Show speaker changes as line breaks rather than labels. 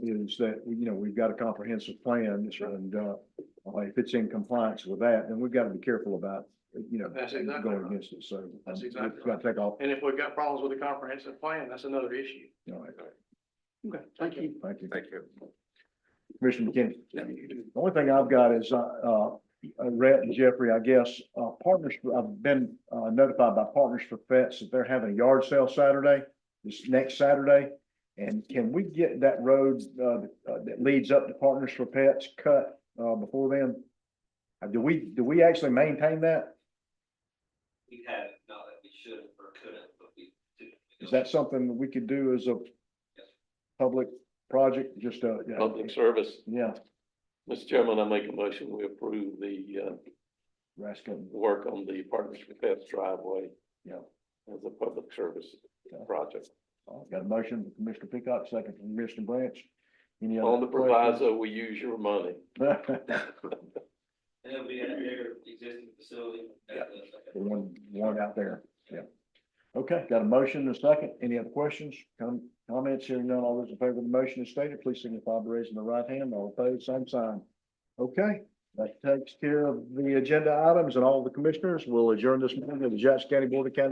message that, you know, we've got a comprehensive plan and, uh, if it's in compliance with that, then we've got to be careful about, you know,
That's exactly
going
right.
against it. So. um,
That's exactly
We've got to take off.
And if we've got problems with the comprehensive plan, that's another issue.
All right.
Okay, thank you.
Thank you.
Thank you.
Commissioner McKinney. The only thing I've got is, uh, uh, Rhett and Jeffrey, I guess, uh, partners, I've been uh, notified by Partners for Pets that they're having a yard sale Saturday, this next Saturday. And can we get that road, uh, that leads up to Partners for Pets cut, uh, before then? Uh, Do we, do we actually maintain that?
We haven't, not that we should have or couldn't, but we do.
Is that something that we could do as a
Yes.
public project, just, uh, yeah,
Public service.
yeah,
Mr. Chairman, I make a motion, we approve the, uh,
rascal,
work on the Partners for Pets driveway
yeah.
as a public service project.
I've got a motion from Commissioner Peacock, second from Commissioner Branch. Any other
On the
questions?
proviso, we use your money.
And it'll be at their existing facility. at the-
The One, one out there, yeah. Okay, got a motion and a second. Any other questions, com- comments? Hearing none, all those in favor of the motion as stated, please signify by raising the right hand. All opposed, same sign. Okay, that takes care of the agenda items and all the commissioners. We'll adjourn this meeting of the Jackson County Board of County